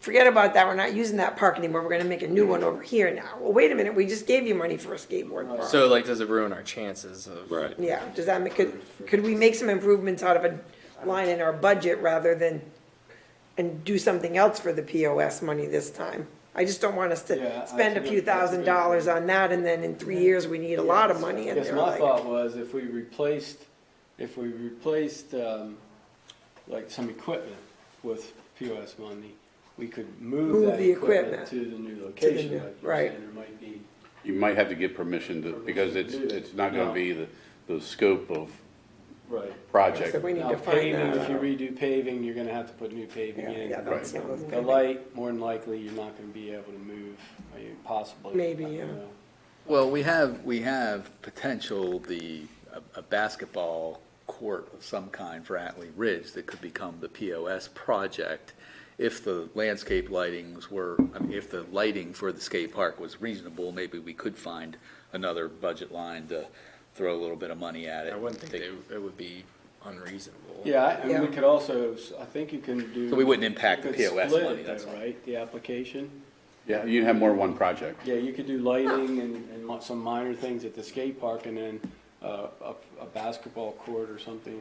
forget about that, we're not using that park anymore, we're gonna make a new one over here now. Well, wait a minute, we just gave you money for a skateboard park. So like, does it ruin our chances of? Right. Yeah, does that make, could, could we make some improvements out of a line in our budget rather than, and do something else for the POS money this time? I just don't want us Yeah, I to spend a think few that's a thousand good dollars point. on that and then in three years, we need a lot of money in Guess there. my like- thought was if we replaced, if we replaced, um, like some equipment with POS money, we could move Move that the equipment equipment. to the new location, new- like you right. there might be. You might have to get permission to, because it's, it's not gonna be the, the scope of Right. project. So we need Now to find paving, that if you out. redo paving, you're gonna have to put new paving Yeah, in. yeah, that's the other The thing. light, more than likely, you're not gonna be able to move, I mean, possibly. Uh, Maybe, you yeah. know. Well, we have, we have potential, the, a- a basketball court of some kind for Atlee Ridge that could become the POS project if the landscape lightings were, I mean, if the lighting for the skate park was reasonable, maybe we could find another budget line to throw a little bit of money at it. I wouldn't think they, it would be unreasonable. Yeah, I- and we Yeah. could also, s- I think you can do. So we wouldn't impact you the could POS split money, it that's though, all. Right, the application? Yeah, you'd have more than one project. Yeah, you could do lighting and, and mo- some minor things at the skate park and then, uh, a, a basketball court or something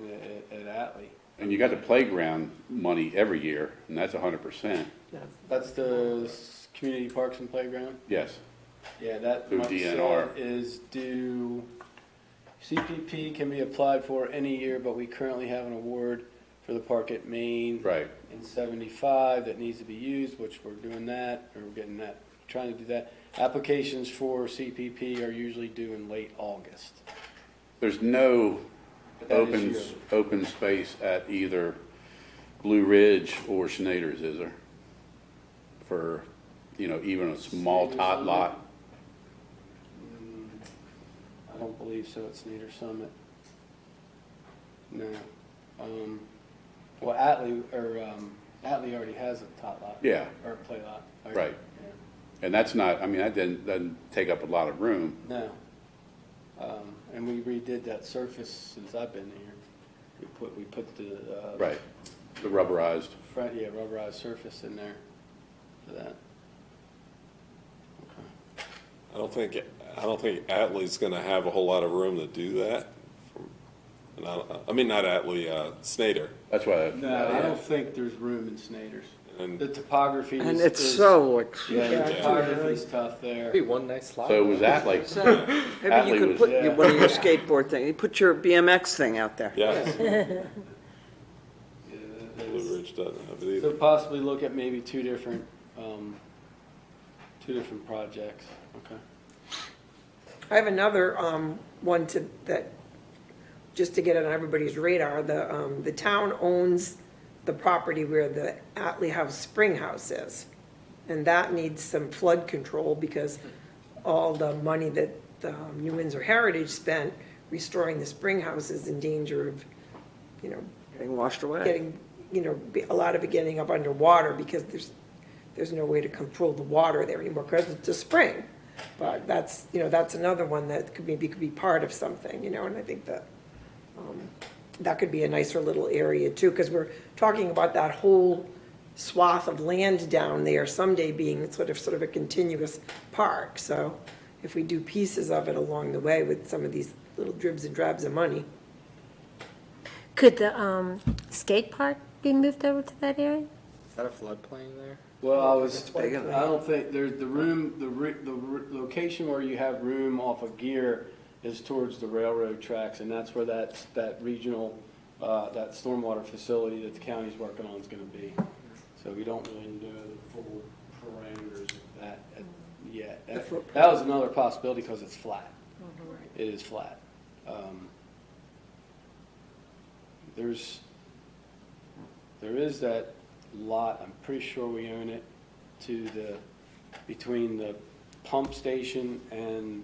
at, at Atlee. And you got the playground money every year, and that's hundred percent, That's the s- community parks and playground? yes. Yeah, that Through much DNR. is due, CPP can be applied for any year, but we currently have an award for the park at Maine. Right. in seventy-five that needs to be used, which we're doing that, or we're getting that, trying to do that. Applications for CPP are usually due in late August. There's no But that is open, yearly. open space at either Blue Ridge or Schneider's, is there? For, you know, even a small Schneider's tot on lot, I don't believe so, it's Nader Summit. No, um, well, Atlee, or, um, Atlee already has a tot lot. Yeah. Or a play lot. Or- Right. yeah. and that's not, I mean, that doesn't, doesn't take up a lot of room. No. Um, and we redid that surface since I've been here. We put, we put the, uh. Right, the rubberized. Front, yeah, rubberized surface in there for that. Okay. I don't think, I don't think Atlee's gonna have a whole lot of room to do that. from- And I, I mean, not Atlee, uh, Snyder. That's why. No, I don't think there's room in Snyder's. And- The topography is. And it's is- so Yeah, extreme. the Yeah. topography's tough there. Be one nice slide. So was that like, Maybe Atlee you could was- put Yeah. your- one of your skateboard thing, you put your BMX thing out there. Yeah, Yeah, that Blue is- Ridge doesn't have it So either. possibly look at maybe two different, um, two different projects, okay? I have another, um, one to, that, just to get it on everybody's radar, the, um, the town owns the property where the Atlee House Spring House is. And that needs some flood control because all the money that the um, New Windsor Heritage spent restoring the spring house is in danger of, you know, Getting washed away. getting, you know, be- a lot of it getting up underwater because there's, there's no way to control the water there anymore because it's a spring. But that's, you know, that's another one that could maybe could be part of something, you know, and I think that, um, that could be a nicer little area too, because we're talking about that whole swath of land down there someday being sort of, sort of a continuous park. So if we do pieces of it along the way with some of these little dribs and drabs of money. Could the um, skate park be moved over to that area? Is that a floodplain there? Well, I was, I big enough. don't think, there's the room, the, re- the re- location where you have room off of Gear is towards the railroad tracks, and that's where that, that regional, uh, that stormwater facility that the county's working on is gonna be. So we don't really know the full parameters of that uh, yet. That footprint. that was another possibility, because it's flat. It is flat. Um, There's, there is that lot, I'm pretty sure we own it, to the, between the pump station and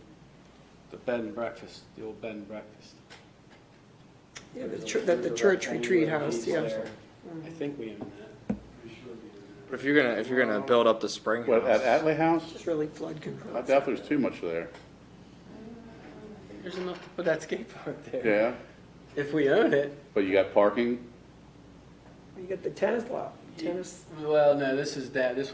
the bed and breakfast, the old bed and breakfast. Yeah, the chur- the- the church retreat house, yeah. I think we own that. But if you're gonna, if you're gonna build up the spring what, at house, Atlee House? It's really flood control. I doubt there's too much there. There's enough to put that skate park there. Yeah, If we own it. but you got parking? You got the tennis lot, tennis. Well, no, this is that, this